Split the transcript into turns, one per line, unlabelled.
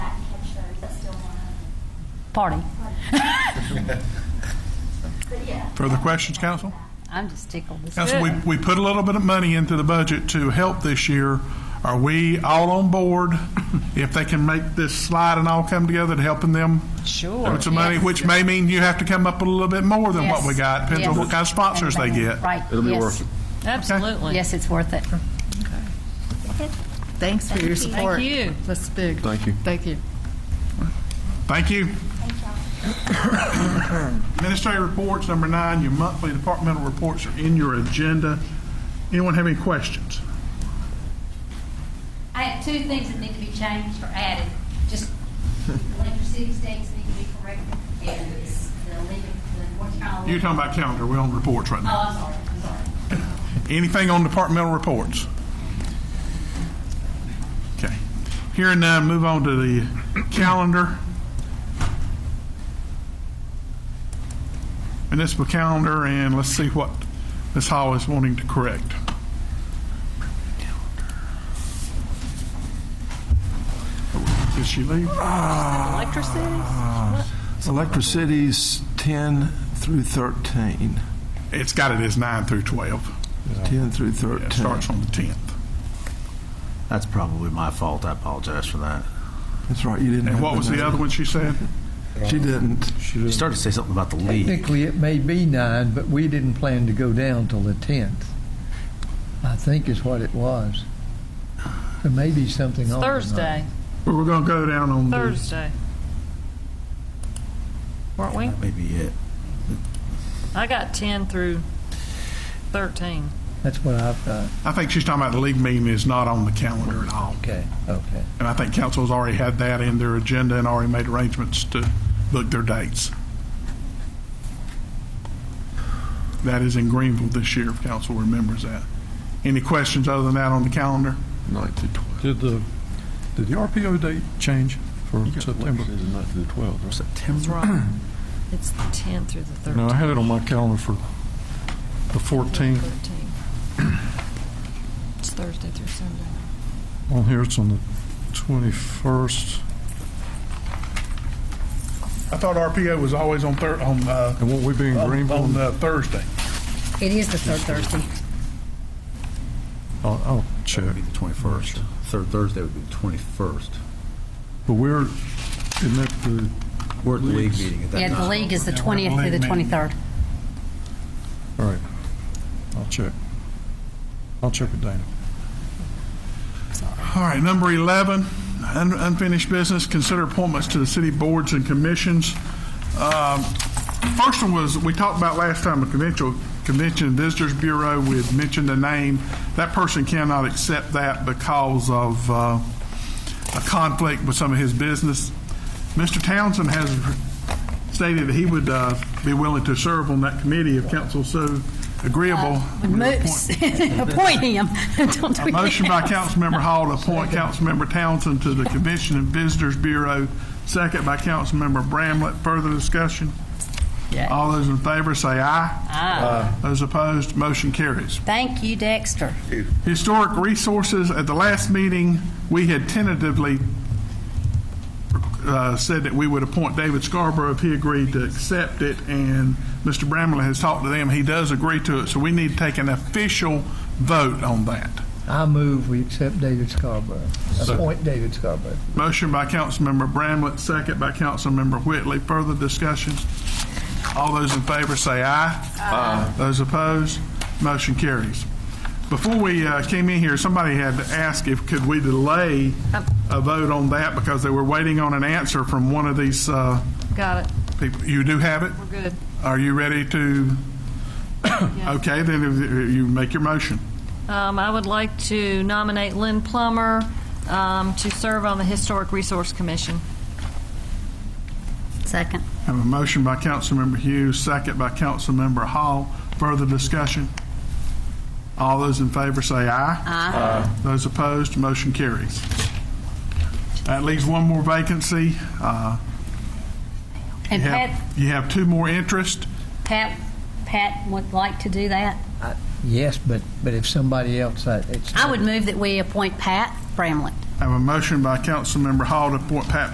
party.
Further questions, council?
I'm just tickled. This
Council, we,
good.
we put a little bit of money into the budget to help this year. Are we all on board if they can make this slide and all come together to helping them?
Sure.
With some money,
Yes.
which may mean you have to come up with a little bit more than what
Yes.
we got. Depends on
Yes.
what kind of sponsors they get.
Right.
It'll be
yes.
worth it.
Absolutely.
Yes, it's worth it.
Thanks for your support.
Thank you. That's big.
Thank you.
Thank you.
Thank you. Administrative reports, number nine, your monthly departmental reports are in your agenda. Anyone have any questions?
I have two things that need to be changed or added, just electricity states need to be corrected, and it's the leaving, the North Carolina.
You're talking about calendar, we're on reports right now.
Oh, I'm sorry, I'm sorry.
Anything on departmental reports? Okay. Here and now, move on to the calendar. Municipal calendar, and let's see what Ms. Hall is wanting to correct. Did she leave?
Electricity's 10 through 13.
It's got it as nine through 12.
10 through
Yeah,
13.
It starts on the 10th.
That's probably my fault. I apologize for that.
That's right, you didn't.
And
have
what was the other one she said?
number. She didn't.
You started to say something about the league.
Technically, it may be nine, but we didn't plan to go down till the tenth. I think is what it was. There may be something
It's
on tonight.
Thursday.
Well, We're going to go down on the,
Thursday. Weren't we?
That may be it.
I got 10 through 13.
That's what I've got.
I think she's talking about the league meeting is not on the calendar at all.
Okay, okay.
And I think council's already had that in their agenda and already made arrangements to book their dates. That is in Greenville this year, if council remembers that. Any questions other than that on the calendar?
9 through 12.
Did the, did the RPO date change for September?
9 through 12, right?
That's right. It's the 10 through the 13.
No, I had it on my calendar for the 14th.
13. It's Thursday through Sunday.
On here, it's on the 21st.
I thought RPO was always on Thur, on, uh,
And won't we be in
Oh,
on
Greenville?
on, uh, Thursday.
It is the third Thursday.
I'll, I'll check.
It'd be the 21st. Third Thursday would be the 21st.
But we're, isn't that the,
We're at the league
Leagues.
meeting at that
Yeah, the
time.
league is the
Yeah, we're
20th through the
league meeting.
23rd.
all right, I'll check. I'll check with Dana.
All right, number 11, un- unfinished business, consider appointments to the city boards and commissions. Um, First one was, we talked about last time, the convention, convention and visitors bureau, we had mentioned the name. That person cannot accept that because of uh, a conflict with some of his business. Mr. Townsend has stated that he would uh, be willing to serve on that committee if council so agreeable.
Moose. Appoint him. Don't do
A motion by
that.
Councilmember Hall to appoint Councilmember Townsend to the Convention and Visitors Bureau, second by Councilmember Bramlett. Further discussion?
Yay.
All those in favor say aye. Aye. Those opposed, motion carries.
Thank you, Dexter.
Historic Resources, at the last meeting, we had tentatively uh, said that we would appoint David Scarborough if he agreed to accept it, and Mr. Bramlett has talked to them. He does agree to it, so we need to take an official vote on that.
I move we accept David Scarborough. Appoint David Scarborough.
Motion by Councilmember Bramlett, second by Councilmember Whitley. Further discussion? All those in favor say aye. Aye. Those opposed, motion carries. Before we uh, came in here, somebody had asked if, could we delay a vote on that because they were waiting on an answer from one of these uh,
Got it.
people. You do have it?
We're good.
Are you ready to? Okay, then if you make your motion.
Um, I would like to nominate Lynn Plummer um, to serve on the Historic Resource Commission.
Second.
Have a motion by Councilmember Hughes, second by Councilmember Hall. Further discussion? All those in favor say aye. Aye. Those opposed, motion carries. That leaves one more vacancy. Uh,
And
You
Pat,
have you have two more interest.
Pat, Pat would like to do that.
I- Yes, but, but if somebody else, I, it's.
I would move that we appoint Pat Bramlett.
Have a motion by Councilmember Hall to appoint Pat